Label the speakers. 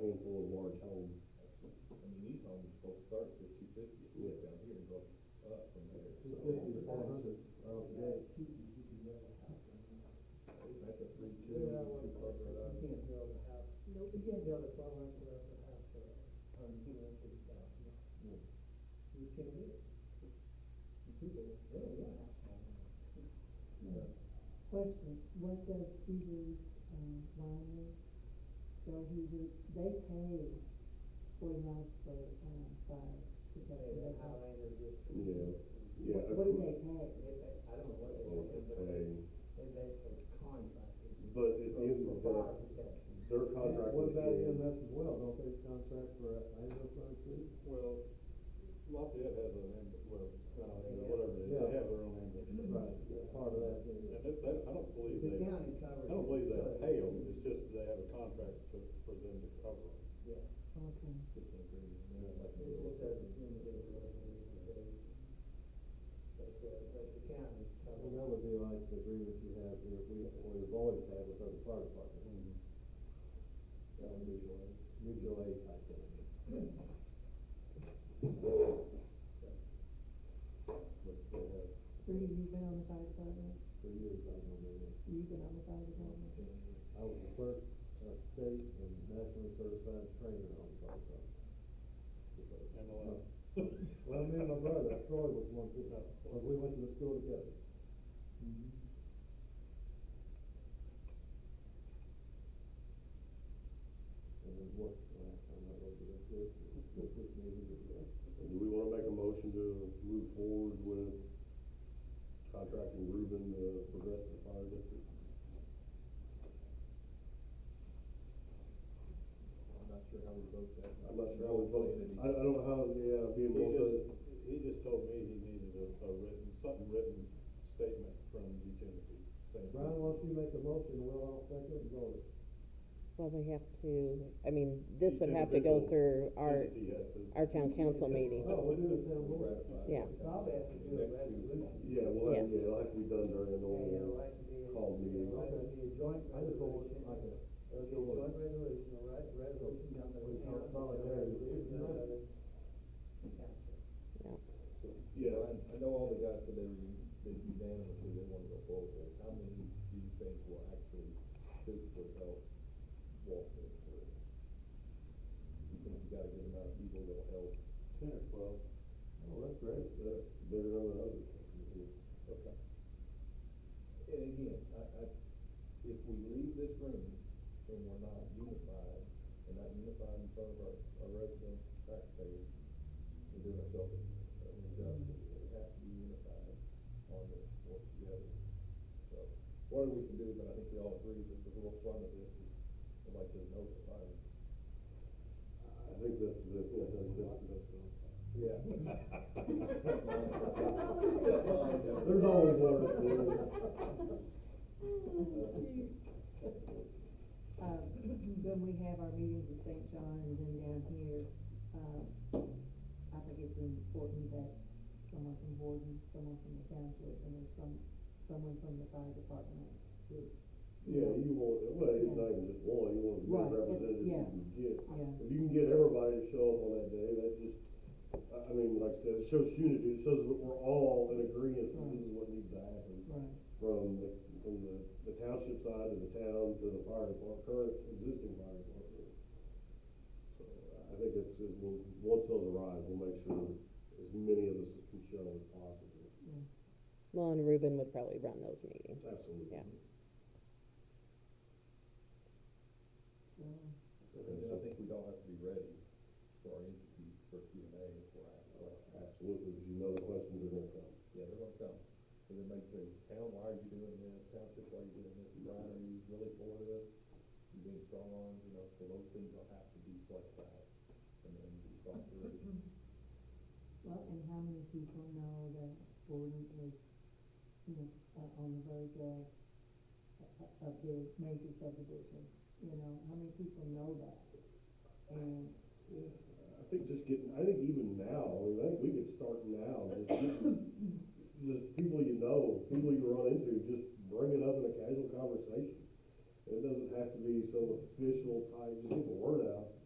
Speaker 1: paying for a large home.
Speaker 2: I mean, these homes are supposed to start at two fifty, if you look down here and go up from there.
Speaker 3: Two
Speaker 2: So
Speaker 3: fifty to four hundred, uh, yeah.
Speaker 2: That's a three, two,
Speaker 3: Yeah, I
Speaker 2: two
Speaker 3: wouldn't
Speaker 2: car
Speaker 3: call it that. You can't build a house,
Speaker 4: Nope.
Speaker 3: you can't build a twelve hundred square foot house for a hundred, two hundred fifty thousand.
Speaker 2: Yeah.
Speaker 3: You can't do it. And People, oh, yeah.
Speaker 4: Question, what does Stevens, um, line So he would, they pay forty dollars for, um, fire protection, they call it.
Speaker 3: Highlander just.
Speaker 1: Yeah, yeah.
Speaker 4: What do they pay?
Speaker 3: They pay, I don't know what they
Speaker 1: Well,
Speaker 3: pay,
Speaker 1: it's a-
Speaker 3: but they basically contracted.
Speaker 1: But at the end of the
Speaker 3: For
Speaker 1: day,
Speaker 3: fire protection.
Speaker 1: their contract
Speaker 5: What
Speaker 1: with
Speaker 5: about
Speaker 1: the,
Speaker 5: EMS as well, don't they contract for uh, ambulance runs too?
Speaker 2: Well, Lafayette has an ambulance, well, uh,
Speaker 3: They have-
Speaker 2: whatever it is, they
Speaker 5: yeah.
Speaker 2: have their own ambulance.
Speaker 5: Right, yeah, part of that,
Speaker 2: And
Speaker 5: yeah.
Speaker 2: that, that, I don't believe
Speaker 3: The
Speaker 2: they, I
Speaker 3: county covers.
Speaker 2: don't believe they
Speaker 3: it,
Speaker 2: pay
Speaker 3: but-
Speaker 2: them, it's just they have a contract for, for them to cover. them.
Speaker 3: Yeah.
Speaker 4: Okay.
Speaker 2: Just an agreement, and they're like,
Speaker 3: It's just a individual, individual. But, uh, but the county's
Speaker 5: Well,
Speaker 3: covered.
Speaker 5: that would be like the agreement you have, here, we, or we've always had with other fire departments,
Speaker 2: mm,
Speaker 1: Mm-hmm.
Speaker 5: that would be your, mutual aid type thing.
Speaker 2: but they have,
Speaker 4: Three, you've been on the fire department,
Speaker 5: For years, I don't know,
Speaker 4: you've been on the fire department,
Speaker 5: I was the first, uh, state and nationally certified trainer on the fire department.
Speaker 2: and a lot.
Speaker 5: Well, me and my brother, Troy was one too, but we went to the school together. And then what, last time I looked at this, this was maybe,
Speaker 1: do we wanna make a motion to move forward with contracting Ruben to progress the fire district?
Speaker 5: I'm not sure how we vote that.
Speaker 1: I'm not sure how we vote, I, I don't know how, yeah, being
Speaker 2: He
Speaker 1: both,
Speaker 2: just,
Speaker 1: of-
Speaker 2: he just told me he needed a, a written, something written statement from utility. saying-
Speaker 5: Brian, why don't you make a motion, we'll all second and vote.
Speaker 6: Well, we have to, I mean, this
Speaker 2: Each
Speaker 6: would have to go
Speaker 2: individual
Speaker 6: through our,
Speaker 2: Entity has to-
Speaker 6: our town council meeting.
Speaker 5: Oh, we do the town board.
Speaker 6: Yeah.
Speaker 3: Probably have to do a resolution.
Speaker 1: yeah, well,
Speaker 6: Yes.
Speaker 1: yeah, it'll have to be done during a
Speaker 3: And it'll
Speaker 1: normal,
Speaker 3: have to be,
Speaker 1: Call meeting.
Speaker 3: it'll have to be a joint
Speaker 5: I just don't want,
Speaker 3: resolution.
Speaker 5: like a,
Speaker 3: It'll be a joint resolution, a right, resolution done by the
Speaker 5: We can't
Speaker 3: council, and a
Speaker 5: solidarity.
Speaker 3: resolution done by the council.
Speaker 1: yeah.
Speaker 7: I, I know all the guys said they, were- they unanimously, they wanna go forward, with it. how many do you think will actually physically help walk this through? You think you got a good amount of people that'll help?
Speaker 2: Ten or twelve.
Speaker 5: oh, that's great.
Speaker 1: That's bigger than others.
Speaker 7: Okay. And again, I, I, if we leave this room and we're not unified, and not unified in front of our, our residents, taxpayers, we're doing ourselves an injustice, so we have to be unified on this, work together. So, what we can do, but I think we all agree that the real fun of this is, nobody says no to fire.
Speaker 1: I think that's the, yeah, that's the.
Speaker 7: Yeah.
Speaker 1: There's always one or two.
Speaker 4: Um, when we have our meetings in St. John and then down here, um, I think it's important that someone from Borden, someone from the township, and then some, someone from the fire department.
Speaker 1: Yeah, you want, well, it's not even just one, you want as many representatives you
Speaker 4: Right, it- yeah.
Speaker 1: can get.
Speaker 4: Yeah.
Speaker 1: If you can get everybody to show up on that day, that just, I, I mean, like I said, it shows unity, it shows that we're all in agreement that this is what needs to happen.
Speaker 4: Right.
Speaker 1: From the, from the, the township side to the town to the fire department, current existing fire department. So I think it's, it will, once those arrive, we'll make sure as many of us can show as possible.
Speaker 6: Well, and Ruben would probably run those meetings.
Speaker 1: Absolutely.
Speaker 6: Yeah.
Speaker 4: So,
Speaker 7: And then I think we all have to be ready for our interview for Q and A if we're asked questions.
Speaker 1: Absolutely, because you know the questions are gonna come.
Speaker 7: Yeah, they're gonna come, and they may say, town, why are you doing this, township, why are you doing this, Brian, are you really for this? You being strong on, you know, so those things will have to be fleshed out, and then be thought through.
Speaker 4: well, and how many people know that Borden is, you know, s- uh, on the verge of, of- of the major subdivision? You know, how many people know that? And if
Speaker 1: I think just getting, I think even now, I mean, I think we could start now, just getting, just people you know, people you run into, just bring it up in a casual conversation. It doesn't have to be some official type, just get the word out.